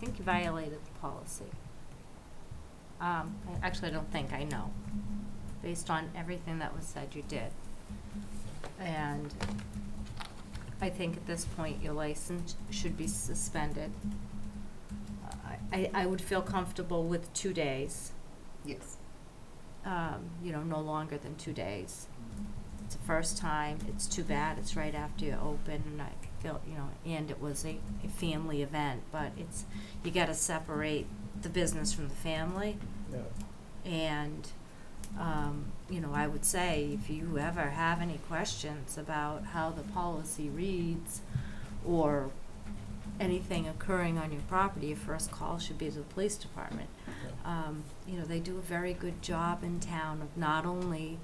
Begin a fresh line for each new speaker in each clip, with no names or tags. think you violated the policy. Um, I- Actually, I don't think, I know. Based on everything that was said, you did. And I think at this point, your license should be suspended. I- I, I would feel comfortable with two days,
Yes.
um, you know, no longer than two days. It's the first time, it's too bad, it's right after you open, and I feel, you know, and it was a, a family event, but it's, you gotta separate the business from the family,
Yeah.
and, um, you know, I would say, if you ever have any questions about how the policy reads, or anything occurring on your property, your first call should be to the police department um, you know, they do a very good job in town of not only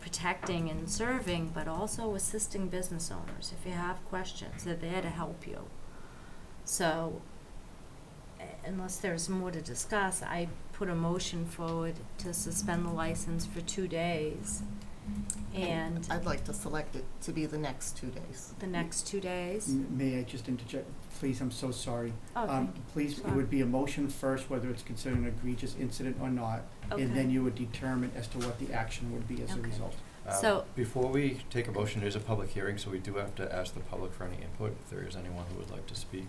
protecting and serving, but also assisting business owners. If you have questions, they're there to help you. So, uh, unless there's more to discuss, I put a motion forward to suspend the license for two days. And
I'd like to select it to be the next two days.
the next two days,
Mm-hmm.
M- May I just interject? Please, I'm so sorry.
oh,
Um,
thank you.
Please, it would be a motion first, whether it's considered an egregious incident or not, and
Okay.
then you would determine as to what the action would be as a
Okay.
result.
Um,
So-
Before we take a motion, there's a public hearing, so we do have to ask the public for any input, if there is anyone who would like to speak.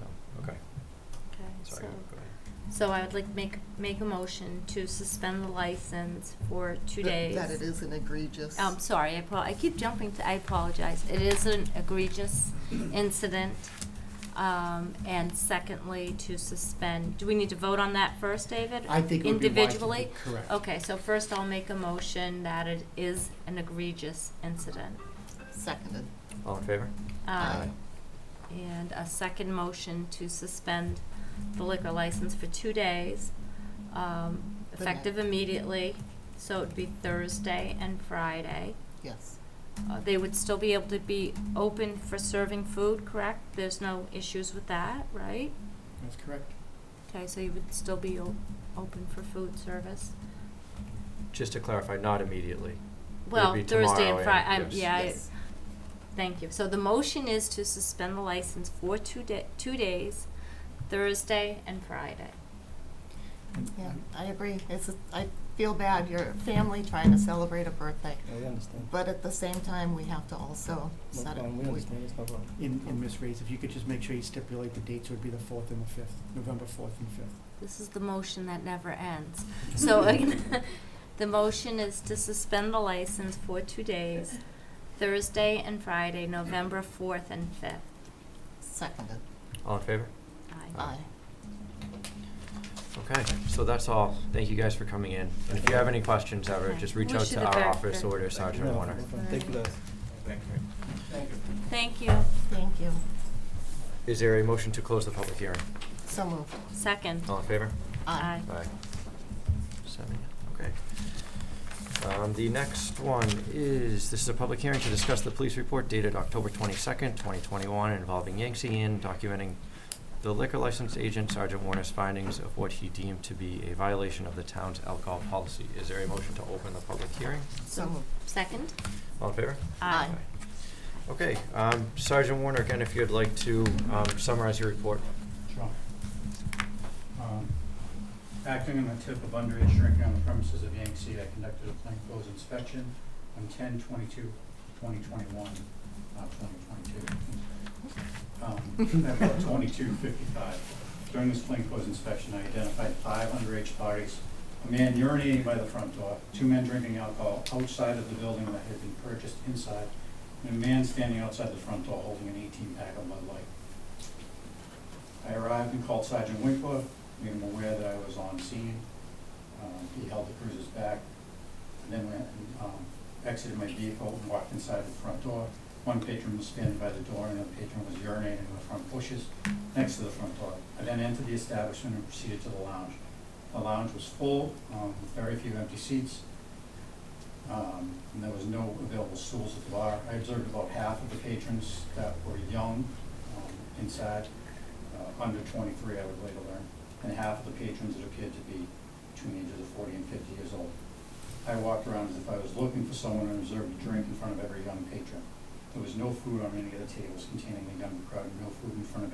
No, okay,
Okay,
sorry,
so-
go go ahead.
So I would like make, make a motion to suspend the license for two
That-
days. Um,
That it is an egregious.
I'm sorry, I, pro- I keep jumping to, I apologize. It is an egregious incident. Um, and secondly, to suspend, do we need to vote on that first, David?
I think it would be wise to do-
Individually?
Correct.
Okay, so first I'll make a motion that it is an egregious incident.
Seconded.
All in favor?
Um, and a second motion to suspend the liquor license for two days, um,
The night.
effective immediately. So it'd be Thursday and Friday.
Yes.
Uh, They would still be able to be open for serving food, correct? There's no issues with that, right?
That's correct.
Okay, so you would still be o- open for food service?
Just to clarify, not immediately.
Well,
be
Thursday and
tomorrow,
Fri-
yeah,
I'm-
yes,
yeah, I,
yes.
thank you. So the motion is to suspend the license for two da- two days, Thursday and Friday.
And- um,
Yeah, I agree. It's, a- I feel bad. Your family trying to celebrate a birthday.
Yeah, we understand.
But at the same time, we have to also
No
set it.
problem, we understand, it's no problem.
And, and Ms. Reyes, if you could just make sure you stipulate the dates, it would be the fourth and the fifth, November fourth and fifth.
This is the motion that never ends. So again, the motion is to suspend the license for two days, Thursday and Friday, November fourth and fifth.
Seconded.
All in favor?
Aye.
Aye.
Okay, so that's all. Thank you guys for coming in. And if you have any questions ever,
Okay.
just reach
We
out
should
to
have
our
back
office
the-
or to Sergeant
No,
Warner.
no problem. Thank you guys.
Thank you.
Thank you.
Is there a motion to close the public hearing?
So moved.
Second.
All in favor?
Aye.
Aye. Seven, okay. Um, the next one is, this is a public hearing to discuss the police report dated October twenty-second, twenty twenty-one involving Yangtze Inn documenting the liquor license agent Sergeant Warner's findings of what he deemed to be a violation of the town's alcohol policy. Is there a motion to open the public hearing?
So moved.
Second?
All in favor?
Aye.
Okay, um, Sergeant Warner, again, if you'd like to, um, summarize your report.
Sure. Um, Acting on the tip of underage drinking on the premises of Yangtze, I conducted a plainclothes inspection on 10-22-2021, uh, twenty twenty-two. Um, at about twenty-two fifty-five. During this plainclothes inspection, I identified five underage parties, a man urinating by the front door, two men drinking alcohol outside of the building that had been purchased inside, and a man standing outside the front door holding an eighteen-pack of Bud Light. I arrived and called Sergeant Winkler, made him aware that I was on scene. Um, He held the cruisers back, and then went and um, exited my vehicle and walked inside the front door. One patron was standing by the door, and another patron was urinating in the front bushes next to the front door. I then entered the establishment and proceeded to the lounge. The lounge was full, um, with very few empty seats, um, and there was no available stools at the bar. I observed about half of the patrons that were young um, inside, uh, under 23, I would later learn, and half of the patrons that appeared to be between the ages of 40 and 50 years old. I walked around as if I was looking for someone and observed a drink in front of every young patron. There was no food on any of the tables containing the younger crowd, no food in front of